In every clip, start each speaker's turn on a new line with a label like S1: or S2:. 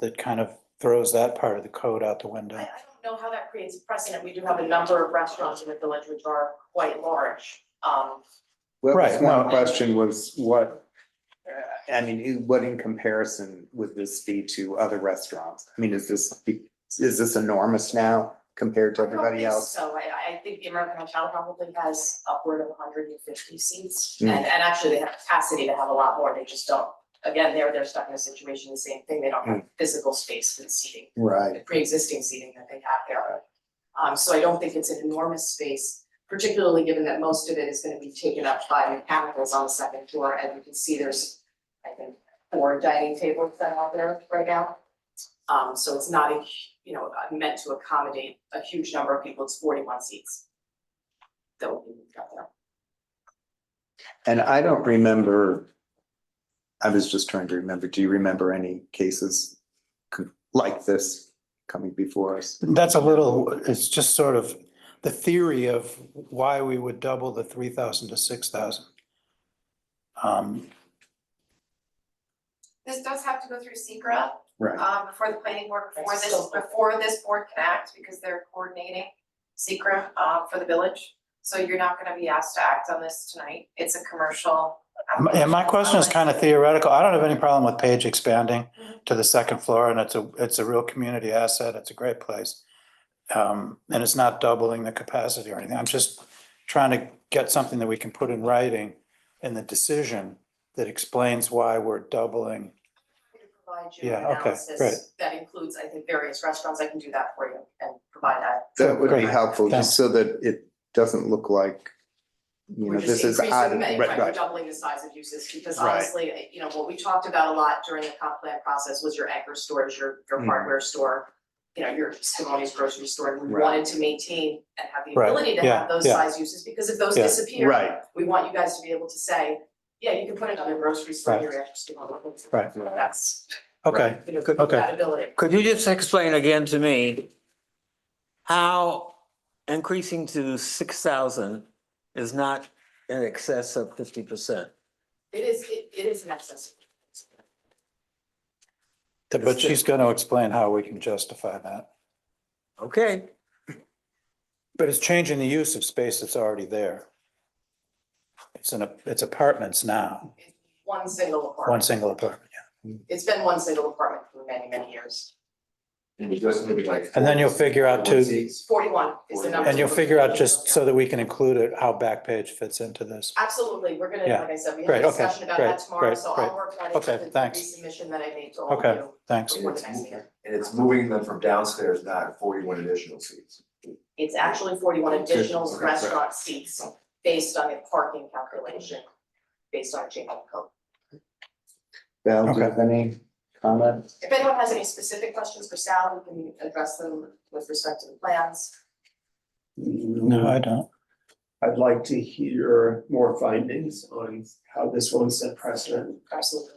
S1: that kind of throws that part of the code out the
S2: I,
S1: window.
S2: I don't know how that creates precedent. We do have a number of restaurants in the village which are quite large. Um,
S3: Well,
S1: Right,
S3: my
S1: no.
S3: question was what, uh, I mean, in- what in comparison would this be to other restaurants? I mean, is this, be- is this enormous now compared to
S2: I don't
S3: everybody
S2: think
S3: else?
S2: So I, I think the American Hotel probably has upward of hundred and fifty seats.
S3: Mm.
S2: And, and actually they have capacity to have a lot more. They just don't, again, they're, they're stuck in a situation, the same thing. They don't have
S3: Hmm.
S2: physical space for the seating. the
S3: Right,
S2: pre-existing seating that they have there. Um, so I don't think it's an enormous space, particularly given that most of it is gonna be taken up by mechanicals on the second floor, and you can see there's, I think, four dining tables that are there right now. Um, so it's not a, hu- you know, uh, meant to accommodate a huge number of people, it's forty-one seats. That will be moved up there.
S3: and I don't remember, I was just trying to remember, do you remember any cases co- like this coming before us?
S1: That's a little, it's just sort of the theory of why we would double the three thousand to six thousand. Um,
S4: This does have to go through Secra
S3: Right,
S4: um, before the planning board, before
S2: That's
S4: this,
S2: still-
S4: before this board can act, because they're coordinating Secra uh, for the village. So you're not gonna be asked to act on this tonight. It's a commercial.
S1: my- and my question is kind of theoretical. I don't have any problem with Page expanding to the second floor and it's a, it's a real community asset. It's a great place. Um, and it's not doubling the capacity or anything. I'm just trying to get something that we can put in writing in the decision that explains why we're doubling.
S2: to provide you an
S1: Yeah, okay, great.
S2: analysis that includes, I think, various restaurants, I can do that for you and provide that.
S3: that would be
S1: Great.
S3: helpful, just so that it doesn't look like, you
S2: We're
S3: know, this
S2: just
S3: is
S2: increasing,
S3: odd.
S2: the ma-
S3: right,
S2: right, we're
S3: right.
S2: doubling the size of uses, because
S3: Right.
S2: honestly, you know, what we talked about a lot during the comp plan process was your anchor stores, your, your
S3: Mm.
S2: hardware store, you know, your Simone's grocery store, and we
S3: Right.
S2: wanted to maintain and have the
S1: Right,
S2: ability to
S1: yeah,
S2: have those
S1: yeah.
S2: size uses, because if those
S1: Yeah.
S2: disappear,
S3: Right.
S2: we want you guys to be able to say, yeah, you can put another grocery store in your anchor store.
S1: Right.
S2: That's,
S1: Okay,
S2: you know,
S1: Okay.
S2: that ability.
S5: Could you just explain again to me how increasing to six thousand is not in excess of fifty percent?
S2: It is, it, it is an excess.
S1: but she's going to explain how we can justify that.
S5: Okay,
S1: But it's changing the use of space that's already there. It's an, it's apartments now,
S2: It's One single
S1: one
S2: apartment,
S1: single apartment.
S2: it's been one single apartment for many, many years,
S6: And it doesn't look like.
S1: And then you'll figure out
S6: four
S1: too-
S6: seats.
S2: forty-one is the number.
S1: And you'll figure out just so that we can include it, how Backpage fits into this.
S2: Absolutely, we're gonna,
S1: Yeah.
S2: like I said, we
S1: Great,
S2: have a
S1: okay,
S2: discussion about
S1: great,
S2: that tomorrow,
S1: great,
S2: so
S1: great.
S2: I'll work on it
S1: Okay,
S2: with the
S1: thanks.
S2: resubmission that I made to all of you.
S1: Okay. Thanks.
S6: And it's
S2: Before the next meeting.
S6: And it's moving them from downstairs, not forty-one additional seats.
S2: It's actually forty-one additional
S6: Okay, right.
S2: restaurant seats based on a parking calculation, based on a change of code.
S3: Val, do
S1: Okay.
S3: you have any comments?
S2: If anyone has any specific questions for Sal, we can address them with respect to the plans.
S1: No, I don't.
S7: Uh, I'd like to hear more findings on how this one set precedent.
S2: Absolutely.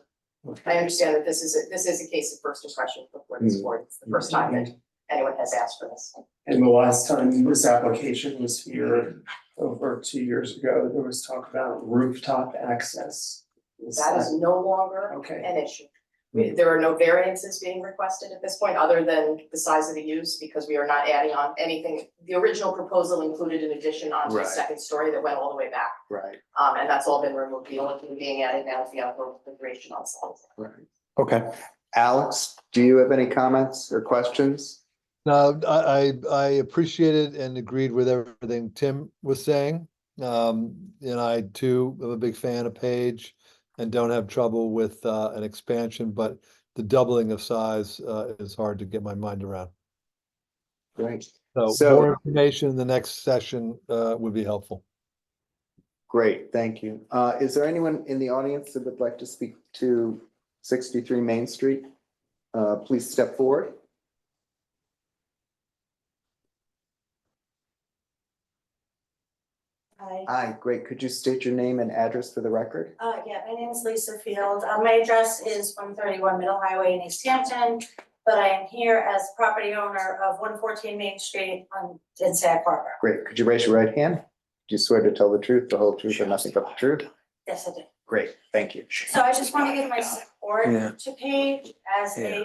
S2: I understand that this is, a- this is a case of first impression before this
S1: Hmm.
S2: board, it's the first time that anyone has asked for this.
S7: And the last time this application was here, over two years ago, there was talk about rooftop access. Is
S2: That is no longer
S7: Okay,
S2: an issue. We- There are no variances being requested at this point, other than the size of the use, because we are not adding on anything. The original proposal included an addition onto the
S3: Right.
S2: second story that went all the way back,
S3: Right,
S2: um, and that's all been removed. The only thing being added now is the outdoor configuration on site.
S3: right.
S1: Okay,
S3: Alex, do you have any comments or questions?
S8: No, I, I, I appreciated and agreed with everything Tim was saying. Um, and I too am a big fan of Page and don't have trouble with, uh, an expansion, but the doubling of size, uh, is hard to get my mind around.
S3: Great.
S8: So
S3: So-
S8: more information in the next session, uh, would be helpful.
S3: Great, thank you. Uh, is there anyone in the audience that would like to speak to sixty-three Main Street? Uh, please step forward.
S9: Hi,
S3: Aye, great. Could you state your name and address for the record?
S9: uh, yeah, my name is Lisa Field. Uh, my address is one thirty-one Middle Highway in East Hampton. But I am here as property owner of one fourteen Main Street on, in Sag Harbor.
S3: Great, could you raise your right hand? Do you swear to tell the truth, the whole truth, and nothing but the truth?
S9: Yes, I do.
S3: Great, thank you.
S9: So I just want to give my support
S5: Yeah.
S9: to Paige as
S5: Yeah.
S9: a